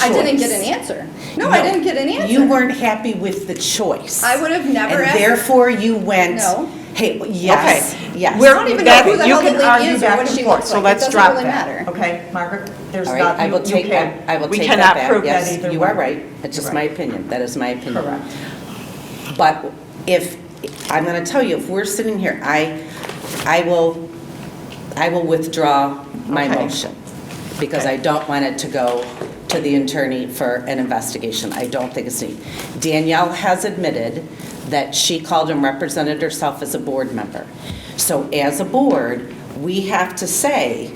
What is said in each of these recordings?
I didn't get an choice. answer. No, I didn't get an You answer. weren't happy with the choice. I would have never And asked. therefore you went, No. hey, yes, yes. We're- I don't even know who the hell the lady is or what she looks So like. It let's doesn't drop really that. matter. Okay, Margaret, there's All not, right, you I will you take can't- that, I will we take cannot that back. prove that Yes, either You way. are right, it's just my opinion, that is my opinion. Correct. But if, I'm going to tell you, if we're sitting here, I, I will, I will withdraw my Okay. motion, because Okay. I don't want it to go to the attorney for an investigation. I don't think it's needed. Danielle has admitted that she called and represented herself as a board member. So as a board, we have to say,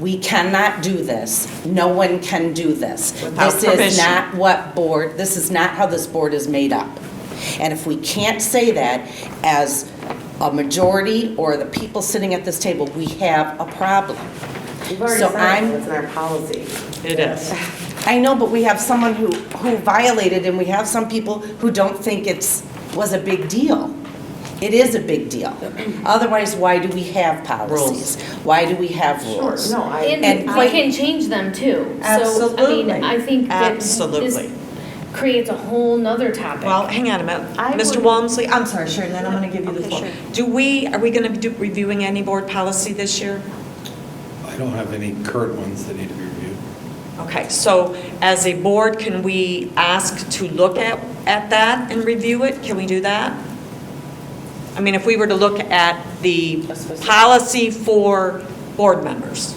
we cannot do this. No one can do this. Without This is permission. not what board, this is not how this board is made up. And if we can't say that as a majority or the people sitting at this table, we have a problem. We've So already I'm- signed it, it's in our policy. It is. I know, but we have someone who, who violated, and we have some people who don't think it's, was a big deal. It is a big deal. Otherwise, why do we have policies? Why do we have rules? No, I, And And we quite- can change them too. Absolutely. So, I mean, I think that Absolutely. this creates a whole nother topic. Well, hang on a minute. I Mr. would- Walmsley, I'm sorry, Sharon, then I'm going to give you the floor. Do we, are we going to be do- reviewing any board policy this year? I don't have any current ones that need to be reviewed. Okay, so as a board, can we ask to look at, at that and review it? Can we do that? I mean, if we were to look at the policy for board members,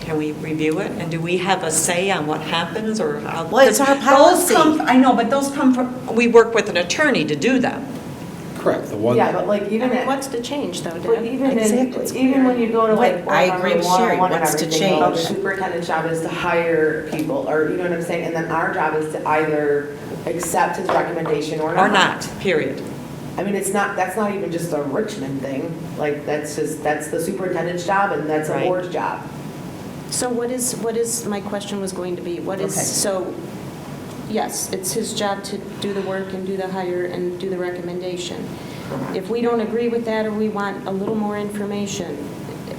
can we review it? And do we have a say on what happens or how? Well, it's our Those come- policy. I know, but those come from, we work with an attorney to do them. Correct, the one, yeah, but like even I mean, at- what's the change, though, But Dan? even in, Exactly. even when you go to like. What- I board agree with member Sherry. 101 and What's to everything, well, The change? superintendent's job is to hire people, or you know what I'm saying? And then our job is to either accept his recommendation or not. Or not, period. I mean, it's not, that's not even just a Richmond thing. Like, that's just, that's the superintendent's job and that's a Right. board's job. So what is, what is, my question was going to be, what is, Okay. so, yes, it's his job to do the work and do the hire and do the recommendation. If we don't agree with that, or we want a little more information,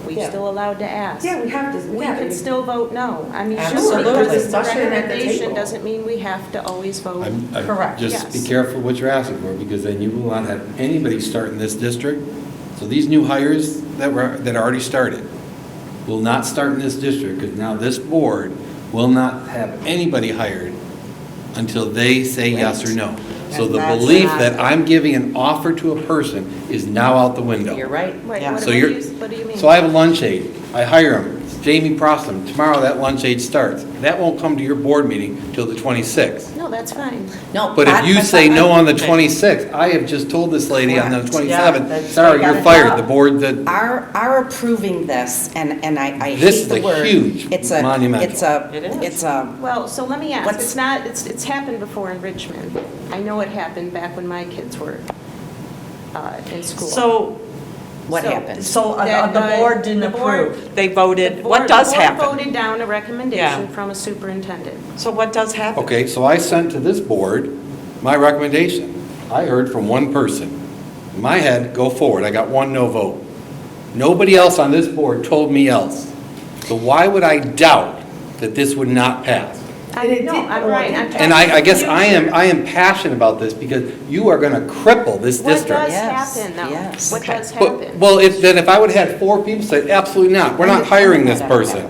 we Yeah. still allowed to ask. Yeah, we have to, We yeah, can still vote no. I mean, just Absolutely. because it's a Discussion at the recommendation table. doesn't mean we have to always vote. I'm, I'm, Correct, just be yes. careful what you're asking for, because then you will not have anybody start in this district. So these new hires that were, that already started will not start in this district, because now this board will not have anybody hired until they say yes or no. So And the that's belief not- that I'm giving an offer to a person is now out the window. You're right. Wait, Yeah. what So do you're, you- what do you mean? so I have a lunch aide, I hire him, It's Jamie Prostam, tomorrow that lunch aide starts. That won't come to your board meeting till the 26th. No, that's fine. No, But if I- you I- say I- no on the 26th, I have just told this lady on the Correct. Yeah, 27th, that's- sorry, you you're gotta fired, go. the board, the, Our, our approving this, and, and I, I This hate the is a word. huge It's a- monumental. It's a, It is. it's a, Well, so let me ask, What's- it's not, it's, it's happened before in Richmond. I know it happened back when my kids were uh, in school. So what So- happened? So uh, That the the- board didn't the board- approve. They The voted, board- what does The board happen? voted down a recommendation Yeah. from a superintendent. So what does happen? okay, so I sent to this board my recommendation. I heard from one person. In my head, go forward, I got one no vote. Nobody else on this board told me else. So why would I doubt that this would not pass? I And it know, did- I'm well, it right. did I'm pass. talking And I, I guess about I am, future. I am passionate about this because you are going to cripple this What does district. Yes, happen, yes. though? What does But- happen? Well, if, then if I would have had four people say, absolutely not, we're not hiring this person,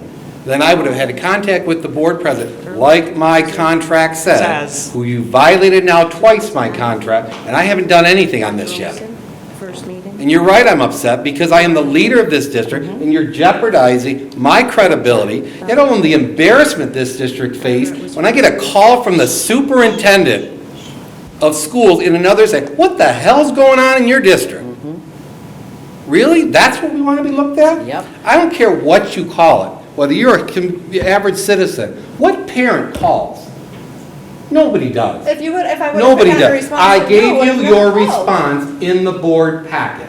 then I would have had a contact with the board president, like my contract Says. says, who you violated now twice my contract, and I haven't done anything on this yet. First meeting? And you're right, I'm upset, because I am the leader of this district, and you're jeopardizing my credibility, and all the embarrassment this district faced, when I get a call from the superintendent of schools in another, say, what the hell's going on in your district? Really? That's what we want to be looked at? Yep. I don't care what you call it, whether you're a com- average citizen, what parent calls? Nobody does. If you would, if I would have Nobody had a does. response. I no, gave would you have your never called. response in the board packet,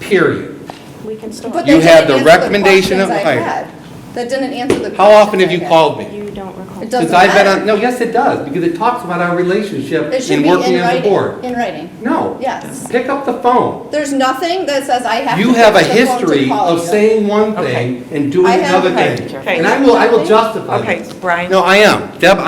period. We can still. But You they had didn't the answer recommendation of questions I hire. had. That didn't answer the question. How often have I you had. called me? You don't recall. It Since doesn't I've been on, matter. no, yes, it does, because it talks about our relationship It should in be in working as a writing, board. in writing. No. Yes. Pick up the phone. There's nothing that says I have to. You have a pick up the phone to history call of you. saying one thing and doing I have- another okay, thing. okay. And I will, I will justify Okay, this. Brian? No, I am. Deb,